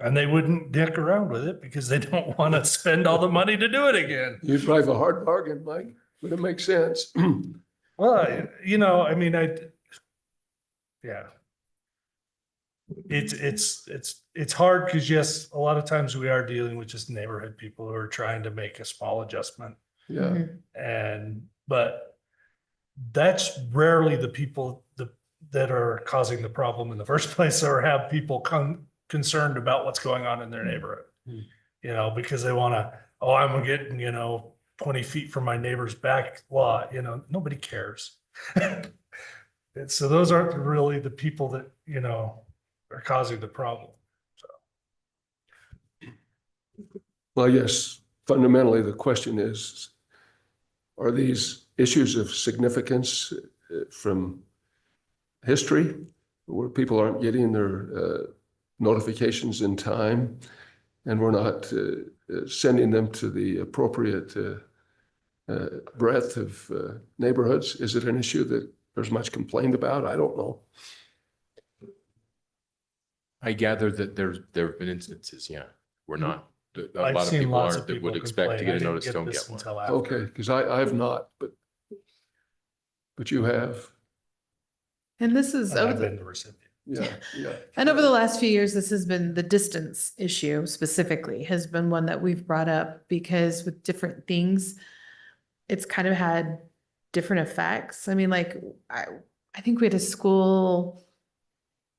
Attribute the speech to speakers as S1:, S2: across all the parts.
S1: And they wouldn't dick around with it because they don't want to spend all the money to do it again.
S2: You drive a hard bargain, Mike, but it makes sense.
S1: Well, you know, I mean, I, yeah. It's, it's, it's, it's hard because yes, a lot of times we are dealing with just neighborhood people who are trying to make a small adjustment.
S2: Yeah,
S1: And, but that's rarely the people that, that are causing the problem in the first place or have people con- concerned about what's going on in their neighborhood.
S2: Hmm.
S1: You know, because they want to, oh, I'm getting, you know, twenty feet from my neighbor's back lot, you know, nobody cares. And so those aren't really the people that, you know, are causing the problem.
S2: well, yes, fundamentally, the question is, are these issues of significance uh, from history, where people aren't getting their uh, notifications in time, and we're not uh, uh, sending them to the appropriate uh, uh, breadth of uh, neighborhoods? Is it an issue that there's much complained about? I don't know.
S3: I gather that there's, there have been instances, yeah, we're not, that a
S1: Mm-hmm. I've
S3: lot of
S1: seen
S3: people
S1: lots
S3: aren't, that would
S1: people
S3: expect to
S1: complain,
S3: get
S1: "I
S3: a
S1: didn't
S3: notice, don't
S1: this
S3: get one.
S1: until after."
S2: Okay, because I, I have not, but, but you have,
S4: And this is,
S1: And
S4: over
S1: I've
S4: the-
S1: been the recipient.
S2: yeah, yeah.
S4: and over the last few years, this has been the distance issue specifically has been one that we've brought up because with different things, it's kind of had different effects. I mean, like, I, I think we had a school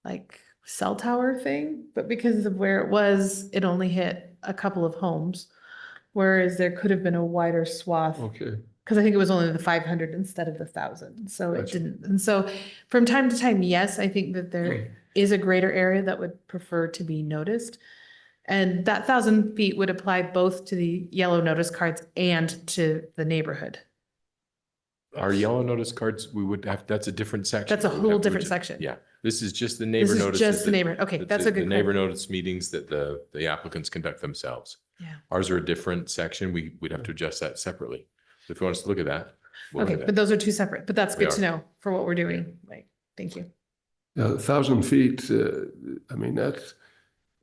S4: like cell tower thing, but because of where it was, it only hit a couple of homes. Whereas there could have been a wider swath
S2: Okay,
S4: because I think it was only the five hundred instead of the thousand, so it
S2: Gotcha.
S4: didn't, and so from time to time, yes, I think that there is a greater area that would prefer to be noticed. And that thousand feet would apply both to the yellow notice cards and to the neighborhood.
S3: Our yellow notice cards, we would have, that's a different section.
S4: That's a
S3: We would
S4: whole
S3: have- we
S4: different
S3: just-
S4: section.
S3: Yeah, this is just the
S4: This
S3: neighbor
S4: is
S3: notices.
S4: just the
S3: that-
S4: neighborhood, okay,
S3: that
S4: that's
S3: the-
S4: a good.
S3: The neighbor
S4: clar-
S3: notice meetings that the, the applicants conduct themselves.
S4: Yeah. Mm.
S3: Ours are a different section, we, we'd have to adjust that separately. So if you want us to look at that. we'll
S4: Okay,
S3: look at
S4: but
S3: that.
S4: those are two separate, but that's
S3: They
S4: good to
S3: are.
S4: know for what we're doing, like, thank you.
S2: Yeah, a thousand feet, uh, I mean, that's,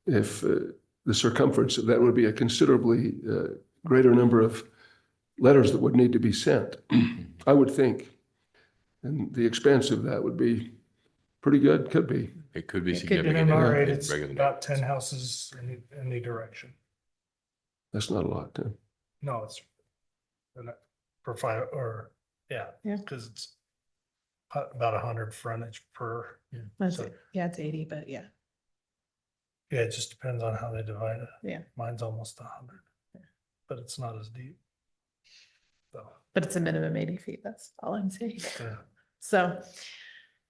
S2: if uh, the circumference, of that would be a considerably uh, greater number of letters that would need to be sent, I would think. And the expense of that would be pretty good, could be.
S3: It could be
S4: It could
S1: In
S4: be.
S3: significant. in-
S1: MR eight,
S3: in
S1: it's
S3: regular
S1: about ten
S3: notices.
S1: houses in any direction.
S2: That's not a lot. huh?
S1: No, it's and that- for five or, yeah.
S4: Yeah.
S1: Cause it's a- about a hundred frontage per,
S4: That's
S1: So-
S4: it, yeah, it's eighty, but yeah,
S1: yeah, it just depends on how they divide it.
S4: Yeah.
S1: Mine's almost a hundred, but it's not as deep. So,
S4: but it's a minimum eighty feet, that's all I'm saying.
S1: yeah.
S4: So,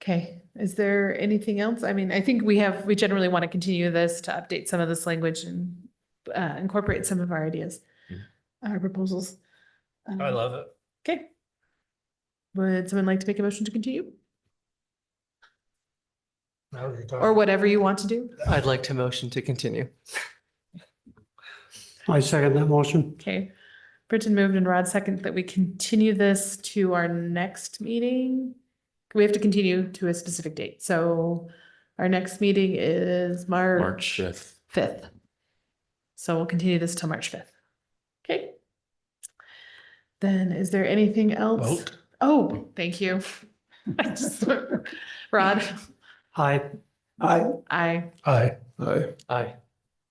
S4: okay, is there anything else? I mean, I think we have, we generally want to continue this to update some of this language and uh, incorporate some of our ideas,
S3: Mhm.
S4: our proposals.
S1: I
S4: Um,
S1: love it.
S4: Okay. Would someone like to make a motion to continue
S1: Now you're talking.
S4: or whatever you want to do?
S5: I'd like to motion to continue.
S6: I second that motion.
S4: Okay. Britton moved and Rod second that we continue this to our next meeting. We have to continue to a specific date. So our next meeting is March.
S3: March fifth.
S4: fifth. So we'll continue this till March fifth. Okay. Then is there anything else?
S1: Vote.
S4: Oh, thank you. I just- Rod,
S6: Aye. Aye.
S4: I,
S1: Aye.
S2: Aye.
S5: Aye.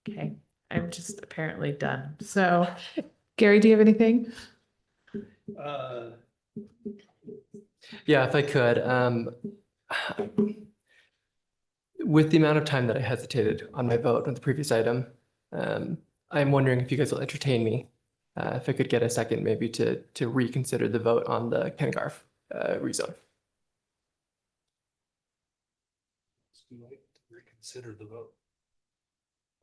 S4: okay, I'm just apparently done. So Gary, do you have anything?
S1: Uh,
S5: Yeah, if I could, um, with the amount of time that I hesitated on my vote on the previous item, um, I'm wondering if you guys will entertain me. Uh, if I could get a second maybe to, to reconsider the vote on the Ken Garf, uh, rezone.
S1: Reconsider the vote.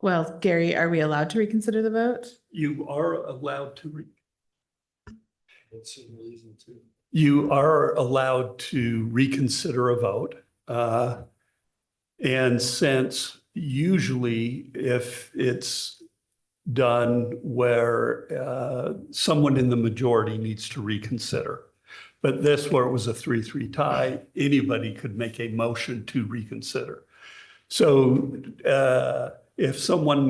S4: Well, Gary, are we allowed to reconsider the vote?
S7: You are allowed to, re-
S1: That's the reason to.
S7: you are allowed to reconsider a vote. uh, And since usually if it's done where uh, someone in the majority needs to reconsider. But this, where it was a 3-3 tie, anybody could make a motion to reconsider. So uh, if someone